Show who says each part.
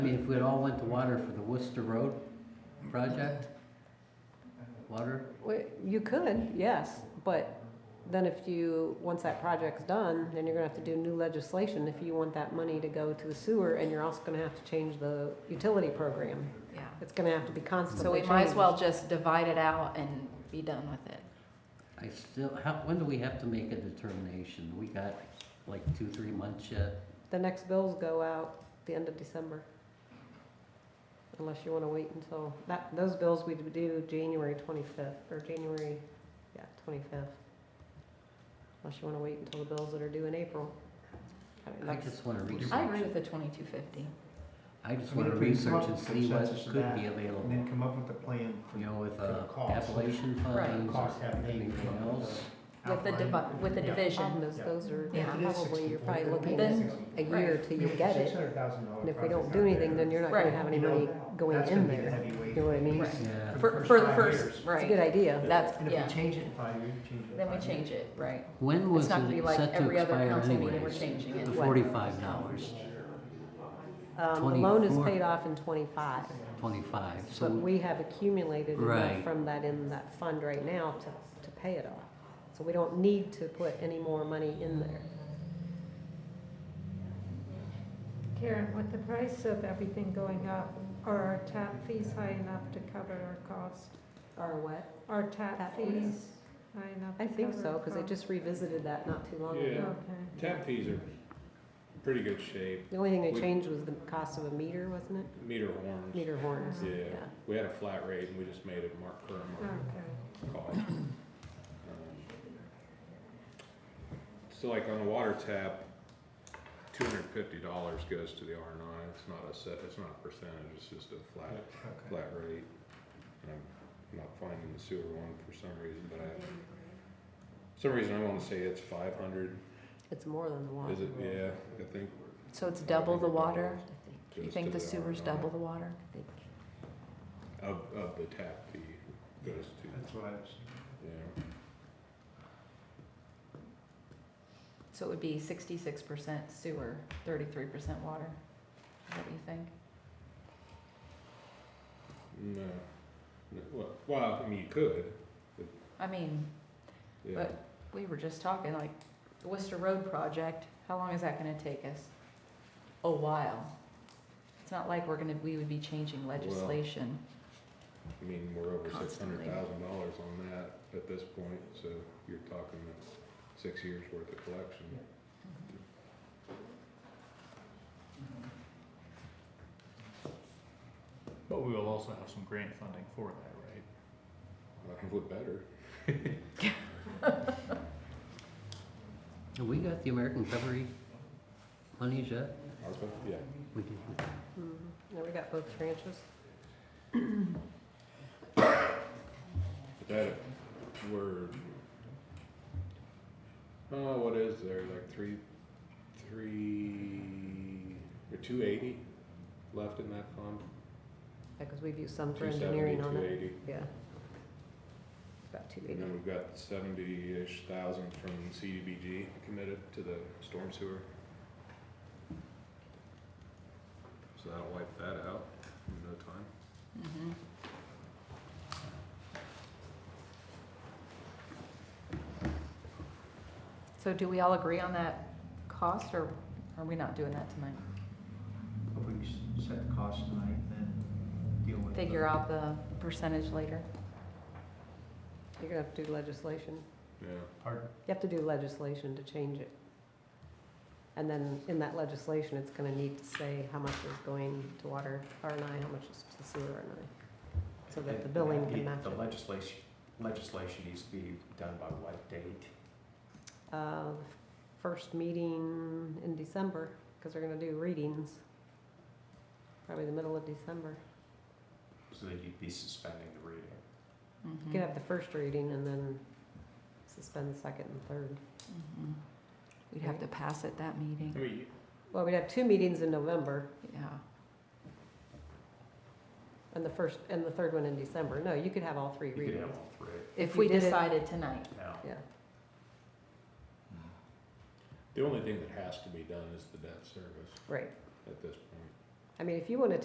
Speaker 1: if we'd all went to water for the Worcester Road project? Water?
Speaker 2: Well, You could, yes, but then if you, once that project's done, then you're gonna have to do new legislation if you want that money to go to the sewer, and you're also gonna have to change the utility program.
Speaker 3: yeah.
Speaker 2: It's gonna have to be constantly
Speaker 3: So we
Speaker 2: changed.
Speaker 3: might as well just divide it out and be done with it.
Speaker 1: I still, how, when do we have to make a determination? We got like two, three months yet?
Speaker 2: The next bills go out the end of December. Unless you wanna wait until, that, those bills we do January twenty-fifth, or January, yeah, twenty-fifth. Unless you wanna wait until the bills that are due in April. I mean,
Speaker 1: I
Speaker 2: that's-
Speaker 1: just wanna research.
Speaker 3: I agree with the twenty-two fifty.
Speaker 1: I just
Speaker 4: I mean,
Speaker 1: wanna
Speaker 4: if we come
Speaker 1: research
Speaker 4: up
Speaker 1: and
Speaker 4: with
Speaker 1: see what
Speaker 4: consensus of
Speaker 1: could
Speaker 4: that,
Speaker 1: be
Speaker 4: And
Speaker 1: available,
Speaker 4: then come up with a plan for
Speaker 1: you know, with uh,
Speaker 4: cost.
Speaker 1: Appalachian
Speaker 3: Right.
Speaker 1: funds,
Speaker 4: cost having
Speaker 1: anything else.
Speaker 3: With the divi- with the division.
Speaker 2: Problem is, those are
Speaker 3: Um, Yeah.
Speaker 2: probably, you're probably looking
Speaker 3: Then-
Speaker 2: at a year till you get it. And if we don't do anything, then you're not gonna
Speaker 3: Right.
Speaker 2: have any money going in there. You know what I mean?
Speaker 3: Right.
Speaker 2: It's
Speaker 1: Yeah,
Speaker 3: For,
Speaker 4: first
Speaker 3: for the
Speaker 4: five
Speaker 3: first,
Speaker 4: years.
Speaker 2: a good
Speaker 3: right,
Speaker 2: idea.
Speaker 3: that's,
Speaker 4: And if
Speaker 3: yeah,
Speaker 4: we change it in five years, we change it in
Speaker 3: then we
Speaker 4: five
Speaker 3: change
Speaker 4: years.
Speaker 3: it, right.
Speaker 1: when was
Speaker 3: It's
Speaker 1: it
Speaker 3: not gonna be like
Speaker 1: set to
Speaker 3: every other
Speaker 1: expire
Speaker 3: council meeting, we're
Speaker 1: anyways?
Speaker 3: changing it.
Speaker 1: The forty-five dollars,
Speaker 2: Um, the loan is
Speaker 1: 24.
Speaker 2: paid off in twenty-five,
Speaker 1: twenty-five,
Speaker 2: but
Speaker 1: so,
Speaker 2: we have accumulated
Speaker 1: Right.
Speaker 2: enough from that in that fund right now to, to pay it off. So we don't need to put any more money in there.
Speaker 5: Karen, with the price of everything going up, are our tap fees high enough to cover our cost?
Speaker 2: Or what?
Speaker 5: Our
Speaker 2: Tap
Speaker 5: tap
Speaker 2: fees?
Speaker 5: fees high enough
Speaker 2: I
Speaker 5: to
Speaker 2: think
Speaker 5: cover
Speaker 2: so,
Speaker 5: our
Speaker 2: because they
Speaker 5: cost?
Speaker 2: just revisited that not too long
Speaker 6: Yeah.
Speaker 2: ago.
Speaker 5: Okay.
Speaker 6: Tap fees are pretty good shape.
Speaker 2: The only thing they
Speaker 6: We-
Speaker 2: changed was the cost of a meter, wasn't it?
Speaker 6: Meter horns.
Speaker 2: Meter horns.
Speaker 6: Yeah,
Speaker 2: Yeah.
Speaker 6: we had a flat rate and we just made it mark per
Speaker 3: Oh,
Speaker 6: market
Speaker 5: Okay,
Speaker 6: cost. Um, So like on the water tap, two hundred and fifty dollars goes to the R and I. It's not a set, it's not a percentage, it's just a flat,
Speaker 4: Okay.
Speaker 6: flat rate. And I'm not finding the sewer one for some reason, but I, some reason I wanna say it's five hundred.
Speaker 2: It's more than the one.
Speaker 6: Is it? Yeah, I think.
Speaker 3: So it's double the water? You
Speaker 6: goes
Speaker 3: think
Speaker 6: to
Speaker 3: the sewer's
Speaker 6: R&I.
Speaker 3: double the water?
Speaker 6: Of, of the tap fee goes to,
Speaker 4: That's what I was.
Speaker 6: yeah,
Speaker 3: So it would be sixty-six percent sewer, thirty-three percent water. Is that what you think?
Speaker 6: no, no, mm, uh, well- well, I mean, you could,
Speaker 3: I mean,
Speaker 6: yeah.
Speaker 3: But- we were just talking, like, the Worcester Road project, how long is that gonna take us? A while. It's not like we're gonna, we would be changing legislation.
Speaker 6: I mean, we're over six
Speaker 3: Constantly.
Speaker 6: hundred thousand dollars on that at this point, so you're talking a six years worth of collection.
Speaker 7: But we will also have some grant funding for that, right?
Speaker 6: I would better,
Speaker 1: have we got the American Recovery monies yet?
Speaker 6: I was, about- yeah,
Speaker 1: We can-
Speaker 2: Mhm. Yeah, we got both tranches.
Speaker 6: but that, we're, oh, what is there, like three, three, or two eighty left in that fund?
Speaker 2: Because we've used some for
Speaker 6: 270,
Speaker 2: engineering on it.
Speaker 6: 280.
Speaker 2: Yeah. About two
Speaker 6: And
Speaker 2: eighty.
Speaker 6: then we've got seventy-ish thousand from CDBG committed to the storm sewer. So that'll wipe that out in no time.
Speaker 3: Mhm. So do we all agree on that cost, or are we not doing that tonight?
Speaker 4: If we s- set the cost tonight, then deal with. the-
Speaker 3: Figure out the percentage later?
Speaker 2: You're gonna have to do legislation.
Speaker 6: Yeah,
Speaker 4: Pardon?
Speaker 2: You have to do legislation to change it. And then in that legislation, it's gonna need to say how much is going to water R and I, how much is to sewer R and I. So that the billing can match it.
Speaker 4: legislation, legislation needs to be done by what date?
Speaker 2: Uh, first meeting in December, because they're gonna do readings. Probably the middle of December.
Speaker 4: So that you'd be suspending the reading.
Speaker 3: Mm-hmm.
Speaker 2: You
Speaker 3: Mm.
Speaker 2: could have the first reading and then suspend the second and third.
Speaker 3: Mhm. We'd have to pass at that meeting,
Speaker 6: I mean,
Speaker 2: Well, we'd have two meetings in November
Speaker 3: yeah.
Speaker 2: and the first, and the third one in December. No, you could have all three
Speaker 4: You could
Speaker 2: readings.
Speaker 4: have all three
Speaker 3: If
Speaker 2: you
Speaker 3: we
Speaker 2: did it-
Speaker 3: decided tonight.
Speaker 4: now.
Speaker 2: Yeah.
Speaker 6: the only thing that has to be done is the debt service
Speaker 2: Right.
Speaker 6: at this point.
Speaker 2: I mean, if you want to